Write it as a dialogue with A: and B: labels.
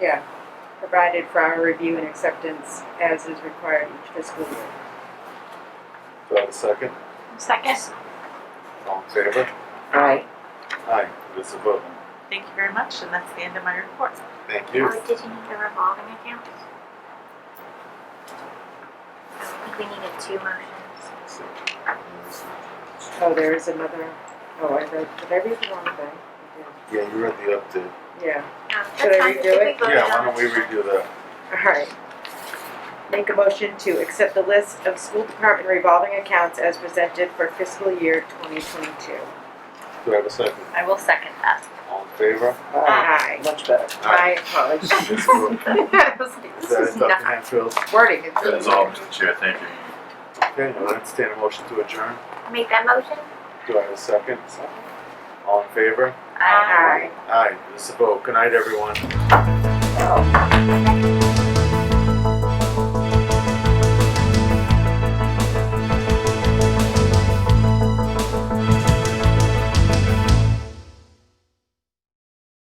A: yeah, provided for our review and acceptance as is required each fiscal year.
B: Do I have a second?
C: Second.
B: All in favor?
D: Aye.
B: Aye, it is a vote.
E: Thank you very much, and that's the end of my report.
B: Thank you.
C: did you need the revolving account? I think we needed two motions.
A: Oh, there is another, oh, I read, did I read the wrong thing?
B: Yeah, you read the update.
A: I did. Yeah,
C: Um,
A: Should
C: that's
A: I
C: fine.
A: redo
C: think we
A: it?
C: voted
B: Yeah, why
C: on
B: don't we
C: it.
B: review that?
A: alright. Make a motion to accept the list of school department revolving accounts as presented for fiscal year twenty twenty-two.
B: Do I have a second?
C: I will second that.
B: All in favor?
D: Aye.
A: Aye.
D: Ah, Much better.
A: I apologize.
B: It is a vote.
A: I was like, This
B: Is that
A: is
B: it, Dr.
A: not
B: Hatfield?
A: wording, it's
F: That is all, Mr. Chair, thank you.
B: Okay, I'll entertain a motion to adjourn.
C: Make that motion?
B: Do I have a second? All in favor?
C: uh,
A: Aye.
B: Aye, it is a vote. Good night, everyone.
D: Oh.